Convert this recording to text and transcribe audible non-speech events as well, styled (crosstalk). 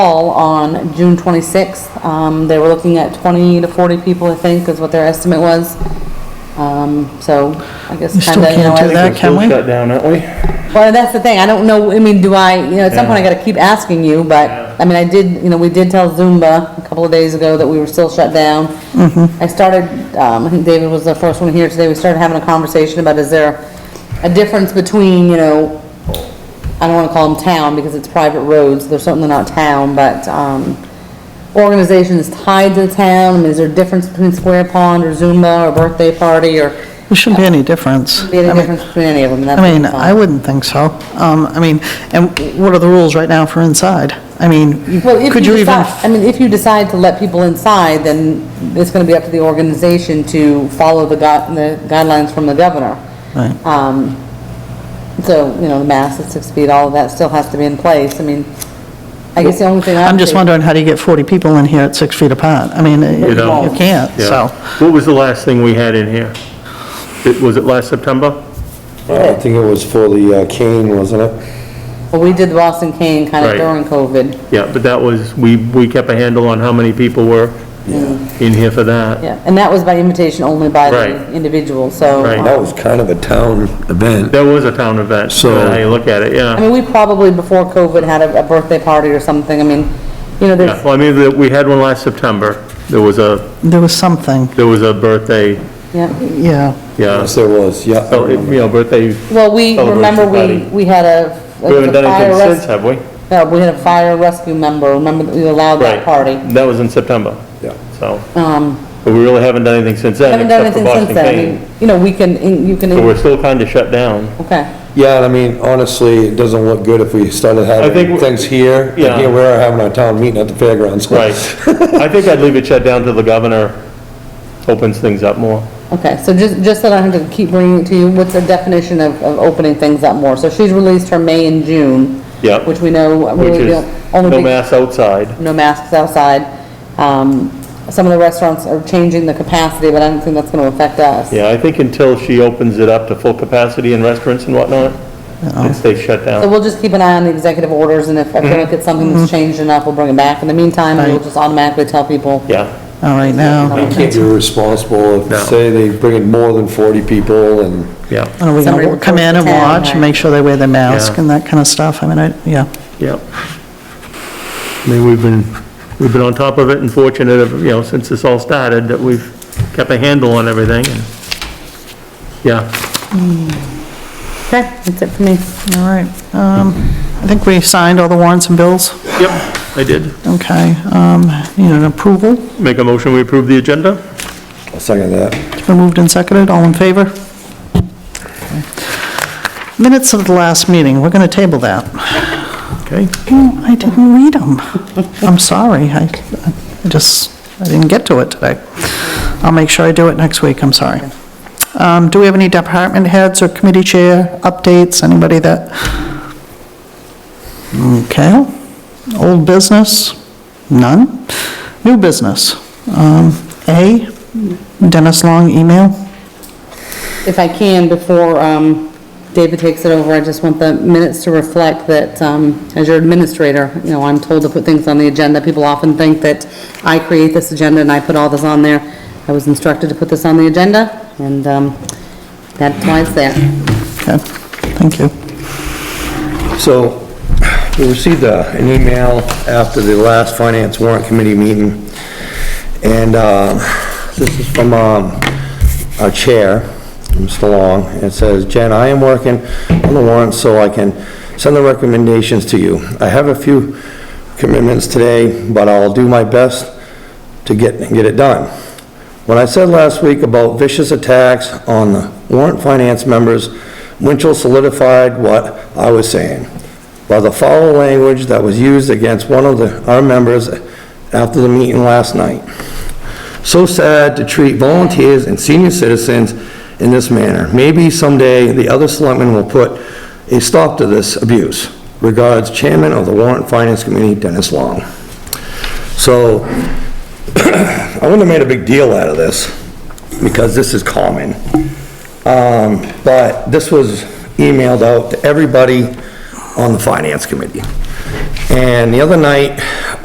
all on June 26th. Um, They were looking at 20 to 40 people, I think, is what their estimate was. Um, So I guess We still kind of, you know, can't do I- that, We're can still we? Shut down, aren't we? well, that's the thing, I don't know, I mean, do I, you know, at some point I gotta keep asking you, but, I mean, I did, you know, we did tell Zumba a couple of days ago that we were still shut down. Mm-hmm. I started, um, I think David was the first one here today, we started having a conversation about is there a difference between, you know, I don't wanna call them town because it's private roads, they're certainly not town, but, um, organizations tied to the town, I mean, is there a difference between Square Pond or Zumba or Birthday Party or, There shouldn't be any difference. be I any mean- difference between any of them? That's I mean, what I'm- I wouldn't think so. Um, I mean, and what are the rules right now for inside? I mean, Well, if could you you even, decide, I mean, if you decide to let people inside, then it's gonna be up to the organization to follow the gui- the guidelines from the governor. Right. Um, so, you know, the mask at six feet, all of that still has to be in place, I mean, I guess the only thing I. I'm just would wondering, how do you get 40 people in here at six feet apart? I mean, you don't. you can't, Yeah. so. What was the last thing we had in here? It- Was it last September? I think it was for the uh, cane, wasn't it? say- Well, we did the Boston Cane kind of Right. during COVID, Yeah, but that was, we, we kept a handle on how many people were in here for that. yeah, and that was by invitation only by Right. the individual, so. Right. um, That was kind of a town event. That was a town event, So- how you look at it, I yeah. mean, we probably, before COVID, had a, a birthday party or something, I mean, you know, Yeah, there's, Well, I mean, the- we had one last September. There was a, There was something, there was a birthday, yeah. yeah. yeah. Yes, there was, yeah. I So, it- remember. you know, birthday, Well, we, Celebration remember, we, party. we had a. we haven't done fire anything res- since, have we? No, we had a fire rescue member, remember, that we allowed that Right. party. That was in September, Yeah. so, Um, but we really haven't done anything since then, haven't done except for anything since Boston then, I Cane. mean, you know, we can, in- you can, So we're in- still kind of shut down. okay. Yeah, and I mean, honestly, it doesn't look good if we started I think having we- things here. like Yeah. Here we are having our town meeting at the fairgrounds. (laughs) Right. I think I'd leave it shut down till the governor opens things up more. Okay, so just, just that I have to keep bringing it to you, what's the definition of, of opening things up more? So she's released her May and June. Yep. Which we know, Which really, is the only no big- mass outside. no masks outside. Um, some of the restaurants are changing the capacity, but I don't think that's gonna affect us. Yeah, I think until she opens it up to full capacity in restaurants and whatnot, it stays shut So down. we'll just keep an eye on the executive orders, and if I Mm-hmm. feel like it's something that's changed enough, we'll bring it back. In the meantime, we'll Right. just automatically tell people. Yeah, All right, now, You can't be responsible No. if, say, they bring in more than 40 people and, yeah, are we Somebody gonna come in and reports to town, watch and right. make sure they wear their mask Yeah. and that kind of stuff? I mean, I, yeah. yeah. I mean, we've been, we've been on top of it and fortunate, of, you know, since this all started, that we've kept a handle on everything. and- Yeah, Okay, that's it for me. All right. Um, I think we signed all the warrants and bills. yep, I did. Okay, um, need an approval. Make a motion, we approve the agenda? I'll second that. It's been moved and seconded, all in favor? Minutes of the last meeting, we're going to table that. Okay, I didn't read them. I'm sorry, I I just, I didn't get to it today. I'll make sure I do it next week, I'm sorry. Um, Do we have any department heads or committee chair updates, anybody that? Okay, old business, none. New business, Um, A, Dennis Long email. If I can, before um, David takes it over, I just want the minutes to reflect that, um, as your administrator, you know, I'm told to put things on the agenda. People often think that I create this agenda and I put all this on there. I was instructed to put this on the agenda, and um, that's why it's there. Okay, thank you. So, we received uh, an email after the last Finance Warrant Committee meeting, and uh, this is from um, our chair, Mr. Long, and it says, "Jen, I am working on the warrant so I can send the recommendations to you. I have a few commitments today, but I'll do my best to get, get it done. What I said last week about vicious attacks on the warrant finance members, Winchell solidified what I was saying. By the foul language that was used against one of the, our members after the meeting last night. So sad to treat volunteers and senior citizens in this manner. Maybe someday the other selectmen will put a stop to this abuse. Regards, Chairman of the Warrant Finance Committee, Dennis Long. So, I wouldn't have made a big deal out of this, because this is common. Um, but this was emailed out to everybody on the finance committee. And the other night,